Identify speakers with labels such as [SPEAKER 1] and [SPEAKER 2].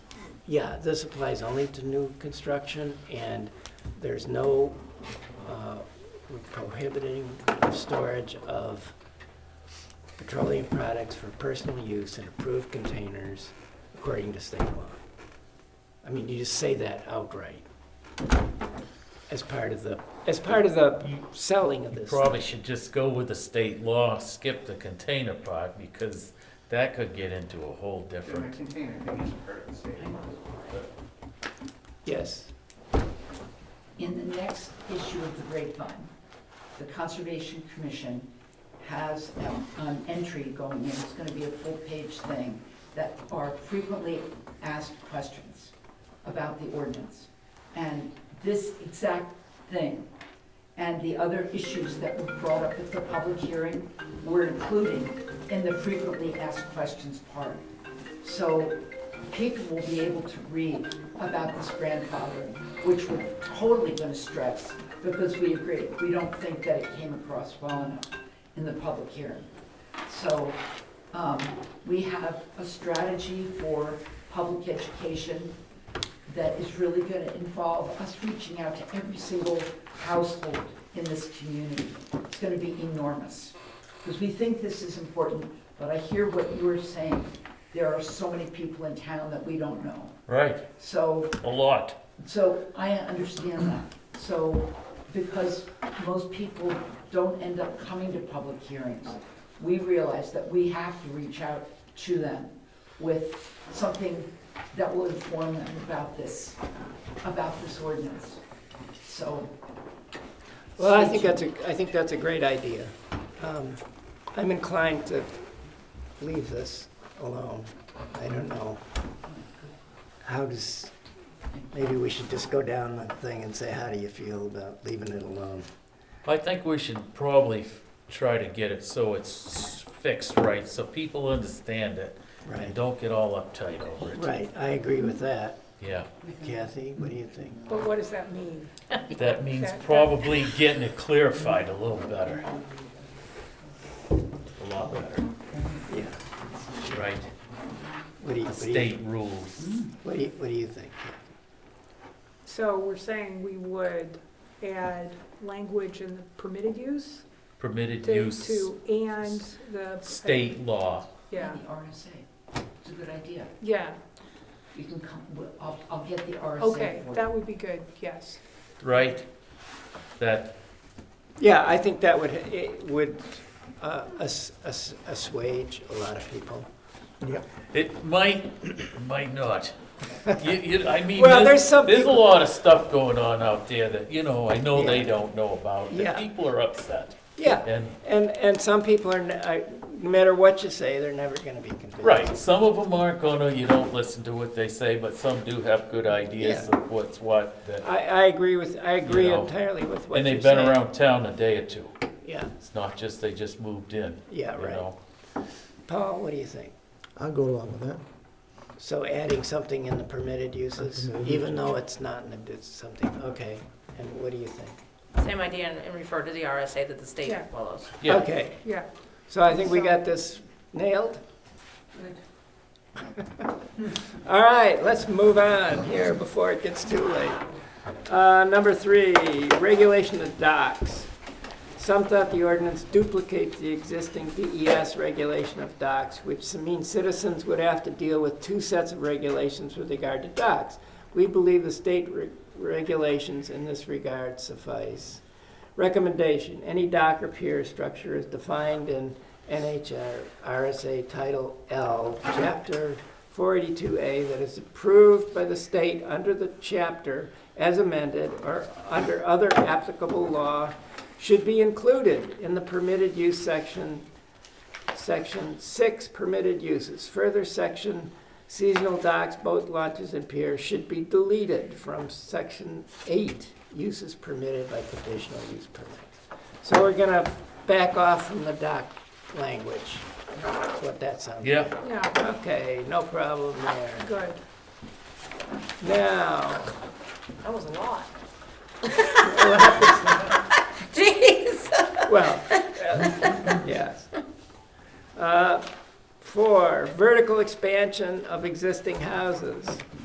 [SPEAKER 1] Yeah, this applies only to new construction, and there's no uh, prohibiting the storage of petroleum products for personal use in approved containers according to state law. I mean, you just say that outright as part of the, as part of the selling of
[SPEAKER 2] You
[SPEAKER 1] this.
[SPEAKER 2] probably should just go with the state law, skip the container part, because that could get into a whole
[SPEAKER 3] In a
[SPEAKER 2] different.
[SPEAKER 3] container thing is part of the state law.
[SPEAKER 1] Yes,
[SPEAKER 4] In the next issue of the grapevine, the Conservation Commission has um, an entry going in, it's gonna be a full-page thing, that are frequently asked questions about the ordinance. And this exact thing, and the other issues that were brought up at the public hearing were included in the frequently asked questions part. So people will be able to read about this grandfathering, which we're totally gonna stress, because we agree, we don't think that it came across well enough in the public hearing. So, um, we have a strategy for public education that is really gonna involve us reaching out to every single household in this community. It's gonna be enormous, because we think this is important, but I hear what you are saying. There are so many people in town that we don't know.
[SPEAKER 2] Right,
[SPEAKER 4] So,
[SPEAKER 2] a lot.
[SPEAKER 4] so I understand that. So, because most people don't end up coming to public hearings, we realize that we have to reach out to them with something that will inform them about this, about this ordinance. So.
[SPEAKER 1] well, I
[SPEAKER 4] stay
[SPEAKER 1] think
[SPEAKER 4] tuned.
[SPEAKER 1] that's a, I think that's a great idea. Um, I'm inclined to leave this alone. I don't know. How does, maybe we should just go down the thing and say, how do you feel about leaving it alone?
[SPEAKER 2] I think we should probably f- try to get it so it's fixed right, so people understand it and
[SPEAKER 1] Right,
[SPEAKER 2] don't get all uptight over it.
[SPEAKER 1] right, I agree with that.
[SPEAKER 2] Yeah,
[SPEAKER 1] Kathy, what do you think?
[SPEAKER 5] But what does that mean?
[SPEAKER 2] that means
[SPEAKER 5] That- that-
[SPEAKER 2] probably getting it clarified a little better. A lot better,
[SPEAKER 1] Yeah.
[SPEAKER 2] right?
[SPEAKER 1] What do you,
[SPEAKER 2] The
[SPEAKER 1] what do you,
[SPEAKER 2] state rules.
[SPEAKER 1] what do you, what do you think? Kathy?
[SPEAKER 5] So we're saying we would add language in the permitted use
[SPEAKER 2] permitted
[SPEAKER 5] to,
[SPEAKER 2] use,
[SPEAKER 5] to and the.
[SPEAKER 2] state law.
[SPEAKER 5] Yeah,
[SPEAKER 4] The RSA, it's a good idea.
[SPEAKER 5] yeah,
[SPEAKER 4] You can come, well, I'll, I'll get the RSA for
[SPEAKER 5] okay,
[SPEAKER 4] you.
[SPEAKER 5] that would be good, yes.
[SPEAKER 2] right? That,
[SPEAKER 1] Yeah, I think that would, it would uh, ass- ass- assuage a lot of people.
[SPEAKER 2] it might, might not. You, you, I mean,
[SPEAKER 1] Well,
[SPEAKER 2] there's,
[SPEAKER 1] there's some
[SPEAKER 2] there's a
[SPEAKER 1] people-
[SPEAKER 2] lot of stuff going on out there that, you know, I know they
[SPEAKER 1] Yeah.
[SPEAKER 2] don't know about,
[SPEAKER 1] Yeah.
[SPEAKER 2] that people are upset.
[SPEAKER 1] Yeah,
[SPEAKER 2] And,
[SPEAKER 1] and, and some people are, n- I- no matter what you say, they're never gonna be convinced.
[SPEAKER 2] right, some of them aren't gonna, you don't listen to what they say, but some do have good ideas
[SPEAKER 1] Yeah.
[SPEAKER 2] of what's what, that,
[SPEAKER 1] I, I agree with, I agree
[SPEAKER 2] know,
[SPEAKER 1] entirely with what
[SPEAKER 2] and
[SPEAKER 1] you're
[SPEAKER 2] they've
[SPEAKER 1] saying.
[SPEAKER 2] been around town a day or two.
[SPEAKER 1] Yeah,
[SPEAKER 2] It's not just they just moved in,
[SPEAKER 1] yeah,
[SPEAKER 2] you
[SPEAKER 1] right.
[SPEAKER 2] know?
[SPEAKER 1] Paul, what do you think?
[SPEAKER 6] I'll go along with that.
[SPEAKER 1] So adding something in the permitted uses,
[SPEAKER 6] Permitted
[SPEAKER 1] even though it's not, in the- it's something, okay, and what do you think?
[SPEAKER 7] Same idea and- and refer to the RSA that the state
[SPEAKER 5] Yeah.
[SPEAKER 7] follows.
[SPEAKER 2] Yeah,
[SPEAKER 1] Okay,
[SPEAKER 5] Yeah,
[SPEAKER 1] so I think we
[SPEAKER 5] So-
[SPEAKER 1] got this nailed.
[SPEAKER 4] Good.
[SPEAKER 1] All right, let's move on here before it gets too late. Uh, Number three, regulation of docks. Some thought the ordinance duplicates the existing DES regulation of docks, which means citizens would have to deal with two sets of regulations with regard to docks. We believe the state re- regulations in this regard suffice. Recommendation, any dock or pier structure is defined in NHR RSA Title L, Chapter 482A that is approved by the state under the chapter as amended or under other applicable law should be included in the permitted use section, section six permitted uses. Further section seasonal docks, boat launches and piers should be deleted from section eight uses permitted by conditional use permit. So we're gonna back off from the dock language. That's what that sounds like.
[SPEAKER 2] yeah,
[SPEAKER 5] yeah,
[SPEAKER 1] Okay, no problem there.
[SPEAKER 5] good.
[SPEAKER 1] Now,
[SPEAKER 7] That was a lot.
[SPEAKER 1] what happens-
[SPEAKER 7] Jeez!
[SPEAKER 1] well, yes. Uh, Four, vertical expansion of existing houses.